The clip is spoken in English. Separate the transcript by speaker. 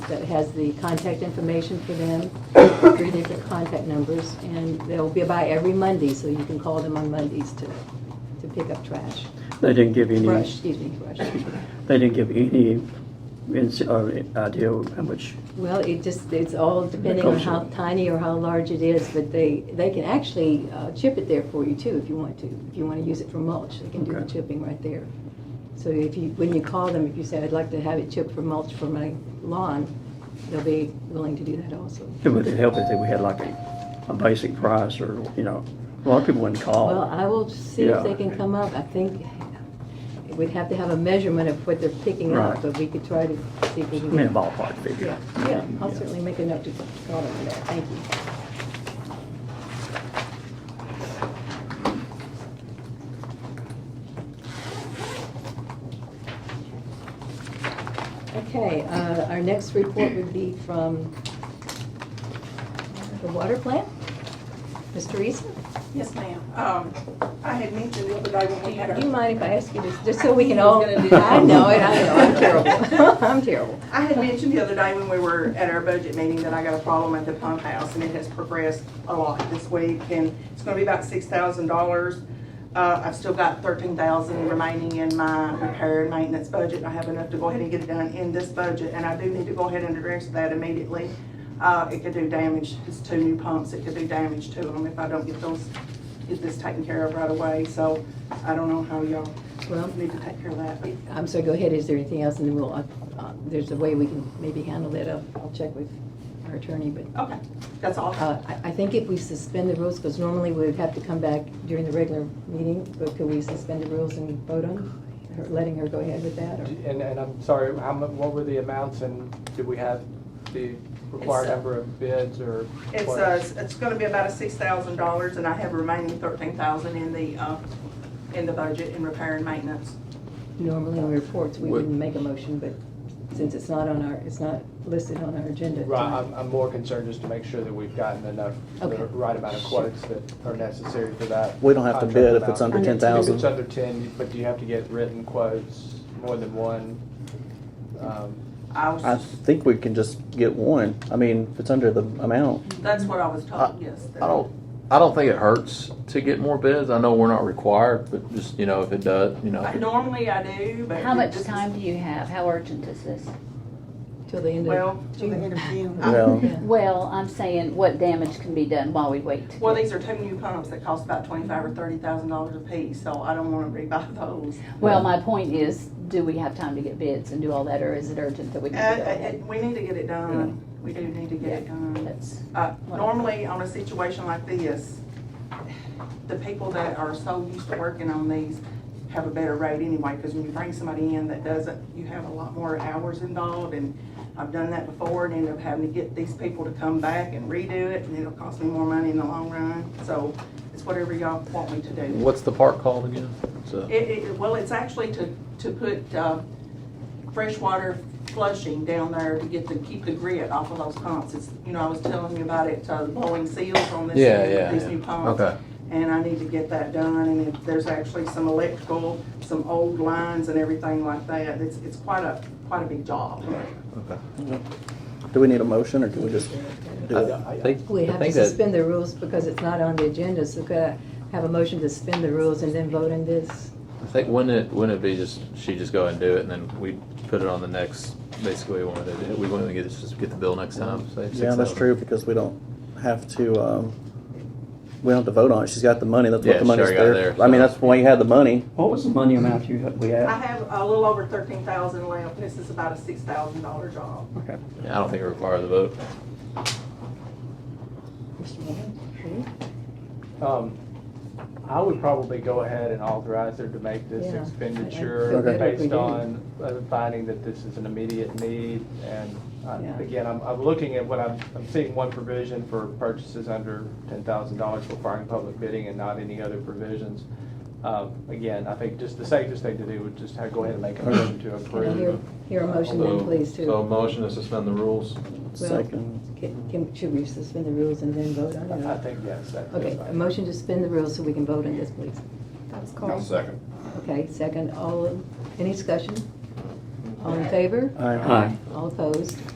Speaker 1: that has the contact information for them, three different contact numbers, and they'll be by every Monday, so you can call them on Mondays to, to pick up trash,
Speaker 2: They didn't give any,
Speaker 1: brush, excuse me, brush.
Speaker 2: they didn't give any ins- or idea how much,
Speaker 1: Well, it just, it's all depending on how tiny or how large it is, but they, they can actually uh, chip it there for you too, if you want to. If you want to use it for mulch, they can do the
Speaker 2: Okay.
Speaker 1: chipping right there. So if you, when you call them, if you say, I'd like to have it chipped for mulch for my lawn, they'll be willing to do that also.
Speaker 2: it would help if we had like a, a basic price or, you know, a lot of people wouldn't
Speaker 1: Well,
Speaker 2: call.
Speaker 1: I will see if they
Speaker 2: Oh. Yeah.
Speaker 1: can come up. I think we'd have to have a measurement of what they're picking up,
Speaker 2: Right.
Speaker 1: but we could try to see if we
Speaker 2: I
Speaker 1: can.
Speaker 2: mean, a ballpark figure.
Speaker 1: Yeah, yeah, I'll certainly make a note to call them for that, thank you. Okay, uh, our next report would be from the water plant, Mr. Reese.
Speaker 3: Yes, ma'am. Um, I had mentioned the other day when we had
Speaker 1: Do you
Speaker 3: our,
Speaker 1: mind if I ask you this, just so we can all?
Speaker 4: I knew he was gonna do that.
Speaker 1: I know it, I know, I'm terrible, I'm terrible.
Speaker 3: I had mentioned the other day when we were at our budget meeting that I got a problem at the pump house and it has progressed a lot this week and it's gonna be about six thousand dollars. Uh, I've still got thirteen thousand remaining in my repair and maintenance budget. I have enough to go ahead and get it done in this budget and I do need to go ahead and address that immediately. Uh, it could do damage, it's two new pumps, it could do damage to them if I don't get those, get this taken care of right away. So I don't know how y'all
Speaker 1: Well,
Speaker 3: need to take care of that.
Speaker 1: I'm sorry, go ahead, is there anything else, and then we'll, uh, uh, there's a way we can maybe handle that, I'll, I'll check with our attorney, but
Speaker 3: Okay, that's all.
Speaker 1: uh, I, I think if we suspend the rules, because normally we would have to come back during the regular meeting, but could we suspend the rules and vote on, her- letting her go ahead with that, or?
Speaker 5: And, and I'm sorry, how, mu- what were the amounts and did we have the required
Speaker 3: It's, uh,
Speaker 5: number of bids or?
Speaker 3: It's,
Speaker 5: what?
Speaker 3: uh, it's gonna be about a six thousand dollars, and I have remaining thirteen thousand in the, uh, in the budget in repair and maintenance.
Speaker 1: Normally on reports, we
Speaker 6: What-
Speaker 1: wouldn't make a motion, but since it's not on our, it's not listed on our agenda.
Speaker 5: Right,
Speaker 1: tonight.
Speaker 5: I'm, I'm more concerned just to make sure that we've gotten enough, the
Speaker 1: Okay.
Speaker 5: right amount of quotes that are necessary for that.
Speaker 6: We don't have to
Speaker 5: contract
Speaker 6: bid if it's
Speaker 5: amount.
Speaker 6: under
Speaker 1: Under
Speaker 6: ten
Speaker 5: If it's
Speaker 6: thousand.
Speaker 5: under ten, but do you have to get written quotes, more than one? Um,
Speaker 3: I
Speaker 6: I
Speaker 3: was,
Speaker 6: think we can just get one. I mean, if it's under the amount,
Speaker 3: that's what I was told, yes.
Speaker 6: I
Speaker 3: that-
Speaker 6: don't
Speaker 7: I don't think it hurts to get more bids. I know we're not required, but just, you know, if it does, you know.
Speaker 3: I- Normally I do, but.
Speaker 4: How much
Speaker 3: this is-
Speaker 4: time do you have? How urgent is this?
Speaker 1: Till the end of
Speaker 3: Well,
Speaker 1: June.
Speaker 6: well,
Speaker 1: Yeah.
Speaker 4: Well, I'm saying what damage can be done while we wait. to
Speaker 3: well,
Speaker 4: get-
Speaker 3: these are two new pumps that cost about twenty-five or thirty thousand dollars apiece, so I don't wanna rebuy those.
Speaker 4: Well, my point is, do we have time to get bids and do all that, or is it urgent that we
Speaker 3: Uh,
Speaker 4: need to go
Speaker 3: uh,
Speaker 4: ahead?
Speaker 3: we need to get it done, we do need to get it done.
Speaker 4: That's,
Speaker 3: Uh, Normally, on a situation like this, the people that are so used to working on these have a better rate anyway, because when you bring somebody in that doesn't, you have a lot more hours involved, and I've done that before, and end up having to get these people to come back and redo it, and it'll cost me more money in the long run, so it's whatever y'all want me to do.
Speaker 7: What's the park called again? It's a-
Speaker 3: It, it, well, it's actually to, to put, uh, freshwater flushing down there to get the, keep the grit off of those pumps. It's, you know, I was telling you about it, uh, blowing seals on this,
Speaker 7: Yeah,
Speaker 3: new-
Speaker 7: yeah,
Speaker 3: these
Speaker 7: yeah.
Speaker 3: new pumps.
Speaker 7: Okay.
Speaker 3: And I need to get that done, and if there's actually some electrical, some old lines and everything like that, it's, it's quite a, quite a big job.
Speaker 6: do we need a motion or can we just do it?
Speaker 7: I think-
Speaker 1: We
Speaker 7: I
Speaker 1: have to
Speaker 7: think that-
Speaker 1: suspend the rules because it's not on the agenda, so could I have a motion to suspend the rules and then vote on this?
Speaker 7: I think wouldn't it, wouldn't it be just, she just go ahead and do it and then we put it on the next, basically we want to, do it. we want to get, just get the bill next time, say.
Speaker 6: Yeah, that's true because we don't have to, um, we don't have to vote on it. She's got the money. That's what
Speaker 7: Yeah,
Speaker 6: the money's
Speaker 7: she already got
Speaker 6: there.
Speaker 7: there,
Speaker 6: I mean,
Speaker 7: so.
Speaker 6: that's why you had the money.
Speaker 2: What was the money amount you, we
Speaker 3: I
Speaker 2: had?
Speaker 3: have a little over thirteen thousand left, and this is about a six thousand dollar job.
Speaker 2: Okay.
Speaker 7: I don't think it requires a vote.
Speaker 1: Mr. Morgan?
Speaker 5: Um, I would probably go ahead and authorize her to make this
Speaker 1: Yeah, I- I
Speaker 5: expenditure
Speaker 1: feel better if we
Speaker 5: based
Speaker 1: do.
Speaker 5: on uh, finding that this is an immediate need. And uh,
Speaker 1: Yeah.
Speaker 5: again, I'm, I'm looking at what I'm, I'm seeing one provision for purchases under ten thousand dollars requiring public bidding and not any other provisions. Um, Again, I think just the safest thing to do would just ha- go ahead and make a motion to
Speaker 1: Can I hear,
Speaker 5: approve. Uh,
Speaker 1: hear a motion then, please, to?
Speaker 8: So motion to suspend the rules.
Speaker 6: Second.
Speaker 1: Can, can- should we suspend the rules and then vote on
Speaker 5: I
Speaker 1: it?
Speaker 5: think, yes, that- that's
Speaker 1: Okay,
Speaker 5: fine.
Speaker 1: a motion to suspend the rules so we can vote on this, please.
Speaker 8: I'll second.
Speaker 1: Okay, second, all, in- any discussion? All in favor?
Speaker 6: Aye.
Speaker 2: Aye.
Speaker 1: All opposed?